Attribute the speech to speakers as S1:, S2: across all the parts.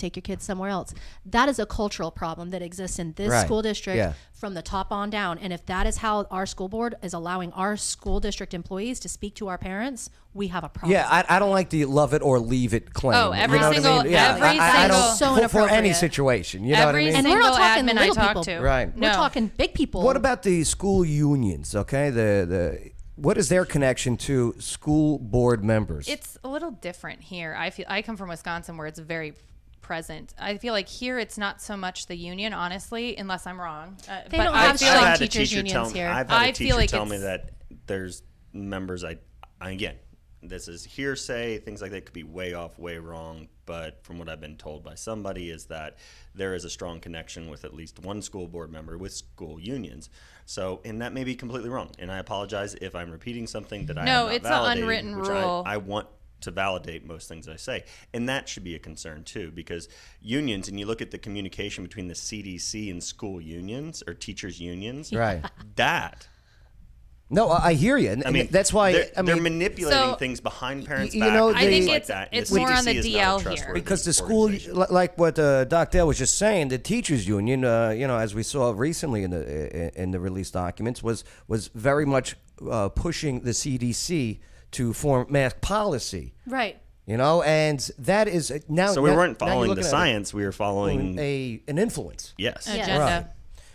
S1: take your kids somewhere else. That is a cultural problem that exists in this
S2: Right.
S1: school district
S2: Yeah.
S1: from the top on down. And if that is how our school board is allowing our school district employees to speak to our parents, we have a problem.
S2: Yeah, I, I don't like the love it or leave it claim.
S3: Oh, every
S2: you know what I
S3: single-
S2: mean? Yeah,
S3: every
S2: I, I, I don't,
S1: single-
S2: for-
S1: So
S2: for, any
S1: inappropriate.
S2: situation. You know
S3: Every
S2: what I mean?
S1: and we're not
S3: Single
S1: talking
S3: admin I
S1: little
S3: talk
S1: people.
S3: to.
S2: Right.
S1: We're
S3: No.
S1: talking big people.
S2: What about the school unions? Okay, the the what is their connection to school board members?
S3: It's a little different here. I feel I come from Wisconsin where it's very present. I feel like here it's not so much the union, honestly, unless I'm wrong. Uh,
S1: They
S3: but
S1: don't
S3: I
S1: have
S3: feel
S1: strike
S3: like
S1: I've
S4: had a
S1: teachers'
S4: teacher
S1: unions
S4: tell me,
S1: here.
S4: I've had
S3: I
S4: a
S3: feel
S4: teacher
S3: like
S4: tell me
S3: it's-
S4: that there's members I, I again, this is hearsay, things like that could be way off, way wrong. But from what I've been told by somebody is that there is a strong connection with at least one school board member with school unions. So, and that may be completely wrong. And I apologize if I'm repeating something that I
S3: No,
S4: have not
S3: it's a
S4: validated,
S3: unwritten
S4: which I-
S3: rule.
S4: I want to validate most things I say. And that should be a concern too, because unions, and you look at the communication between the CDC and school unions or teachers' unions.
S2: Right.
S4: That.
S2: no, I, I hear you. And,
S4: I mean,
S2: that's why
S4: they're,
S2: I
S4: they're
S2: mean
S4: manipulating
S3: So-
S4: things behind parents'
S2: you
S4: back.
S2: know,
S4: and
S2: I
S4: things
S2: think
S4: like
S3: it's-
S4: that.
S3: it's more on the
S4: CDC is not a
S3: DL here.
S4: trustworthy
S2: because the school,
S4: organization.
S2: li- like what uh, Doc Dale was just saying, the teachers union, uh, you know, as we saw recently in the i- in the release documents, was was very much uh, pushing the CDC to form mask policy.
S1: Right.
S2: You know, and oh, that is uh, now.
S4: So we
S2: now-
S4: weren't
S2: now you're
S4: following the
S2: looking at it
S4: science. We were following.
S2: a an influence.
S4: yes.
S3: agenda.
S2: Right.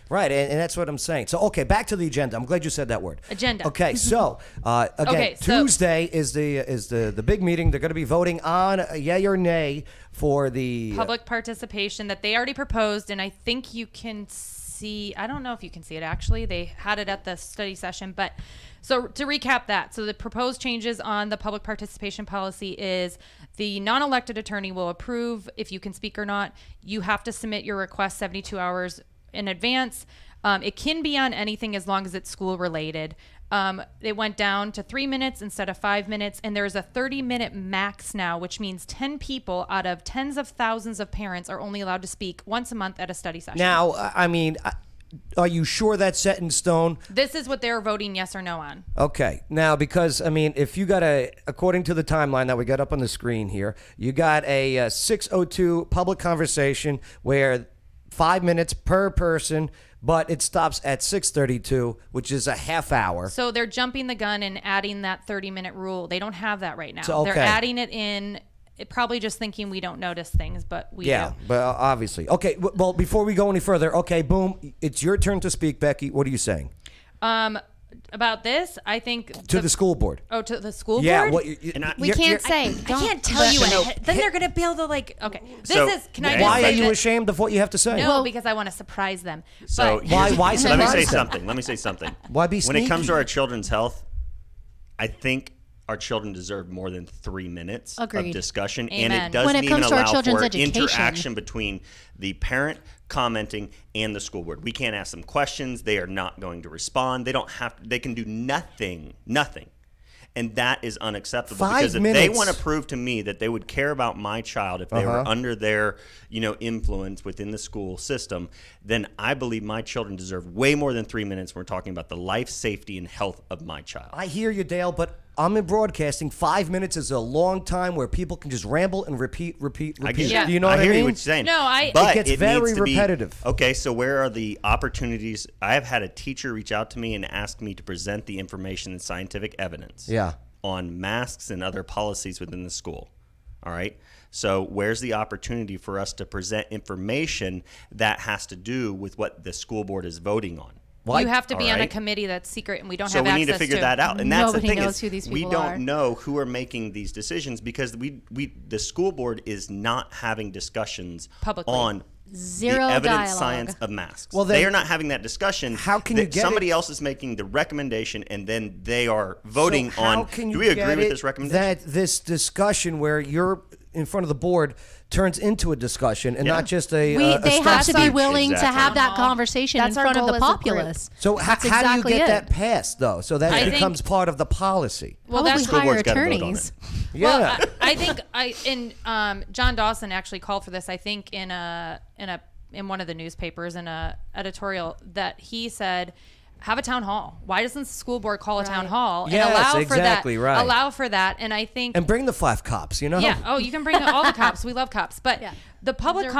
S2: Right, and, and that's what I'm saying. So, okay, back to the agenda. I'm glad you said that word.
S3: Agenda.
S2: Okay, so uh, again,
S3: Okay, so-
S2: Tuesday is the is the the big meeting. They're going to be voting on a yay or nay for the
S3: public participation that they already proposed and i think you can see i don't know if you can see it actually they had it at the study session but so to recap that so the proposed changes on the public participation policy is the non-elected attorney will approve if you can speak or not you have to submit your request 72 hours in advance um, it can be on anything as long as it's school related um, it went down to three minutes instead of five minutes, and there's a 30 minute max now, which means 10 people out of tens of thousands of parents are only allowed to speak once a month at a study session.
S2: Now, I- I mean, I- are you sure that's set in stone?
S3: this is what they're voting yes or no on.
S2: Okay. Now, because I mean, if you got a, according to the timeline that we got up on the screen here, you got a uh, 6:02 public conversation where five minutes per person, but it stops at 6:32, which is a half hour.
S3: So they're jumping the gun and adding that 30 minute rule. They don't have that right now.
S2: So, okay.
S3: They're adding it in, it probably just thinking we don't notice things, but we
S2: yeah,
S3: do.
S2: but uh, obviously. Okay. w- Well, before we go any further, okay, boom, it's your turn to speak, Becky. What are you saying
S3: Um, about this, I think.
S2: to the, school board?
S3: Oh, to the school
S2: Yeah.
S3: board?
S2: What? You, you,
S4: And I-
S2: you're- you're-
S1: say.
S3: I can't tell you. ahead. Then they're going to be able to, like, okay. This
S4: So,
S3: is, can I
S4: why
S3: just
S2: Why
S3: say
S2: are you
S3: that-
S2: ashamed of what you have to say?
S3: No, because I want to surprise them.
S4: So
S3: but,
S2: Why-
S4: here's-
S2: why
S4: Let me
S2: surprise
S4: say
S2: them?
S4: something. Let me say something.
S2: Why be
S4: When it comes
S2: sneaky?
S4: to our children's health, I think our children deserve more than three minutes
S1: Agreed.
S4: of discussion, and
S3: Amen.
S4: it doesn't
S1: When it
S4: even
S1: comes to our
S4: allow
S1: children's
S4: for
S1: education.
S4: interaction between the parent commenting and the school board. We can't ask them questions; they are not going to respond. They don't have. They can do nothing. Nothing. And that is unacceptable
S2: Five
S4: because if they
S2: minutes.
S4: want to prove to me that they would care about my child if they
S2: Uh-huh.
S4: were under their, you know, influence within the school system, then I believe my children deserve way more than three minutes. When we're talking about the life, safety, and health of my child.
S2: I hear you, Dale, but I'm in broadcasting. Five minutes is a long time where people can just ramble and repeat, repeat, repeat.
S4: get
S3: Yeah.
S2: Do you know what I
S4: hear
S2: mean?
S4: you what you're saying.
S3: No, I-
S4: But
S2: It gets
S4: needs
S2: very
S4: to be-
S2: repetitive.
S4: okay, so where are the opportunities? I have had a teacher reach out to me and ask me to present the information and scientific evidence.
S2: Yeah.
S4: On masks and other policies within the school. All right. So where's the opportunity for us to present information that has to do with what the school board is voting on?
S3: you have to be on a
S4: Alright.
S3: committee that's secret, and we don't
S4: so
S3: have
S4: we
S3: access
S4: need to figure that out and that's
S1: Nobody
S4: the thing
S1: knows
S4: is
S1: who these
S4: we
S1: people
S4: don't
S1: are.
S4: know who are making these decisions because we we the school board is not having discussions
S3: Publicly.
S4: on
S1: Zero
S4: the evidence
S1: dialogue.
S4: science of masks
S2: Well,
S4: well
S2: then-
S4: they are not having that discussion
S2: How can
S4: That
S2: you get
S4: somebody
S2: it-
S4: else is making the recommendation and then they are voting
S2: So how
S4: on
S2: can
S4: do
S2: you
S4: we agree
S2: get
S4: with
S2: it
S4: this recommendation
S2: That this discussion where you're in front of the board turns into a discussion and not just a,
S1: We,
S2: uh, a
S1: they
S2: stop
S1: have to be
S2: sign.
S1: willing to
S4: Exactly.
S1: have that conversation
S5: That's
S1: in
S5: our
S1: front of
S5: goal
S1: the
S5: as a group.
S1: populates.
S2: So how,
S1: That's
S2: how do you
S1: exactly
S2: get
S1: it.
S2: that passed though? So that
S3: I
S2: it
S3: think-
S2: becomes part of the policy.
S3: Well,
S1: Probably
S3: that's-
S1: hire
S4: Board's gotta vote on
S1: attorneys.
S4: it.
S2: Yeah.
S3: Well, I, I think I and um, John Dawson actually called for this. I think in a in a in one of the newspapers in a editorial that he said have a town hall. Why doesn't the school board call a town
S1: Right.
S3: hall
S2: Yes,
S3: and allow for
S2: exactly,
S3: that?
S2: right.
S3: Allow for that. And I think
S2: And bring the five cops, you know?
S3: yeah. Oh, you can bring all the cops. We love cops, but
S1: Yeah.
S3: the public
S1: They're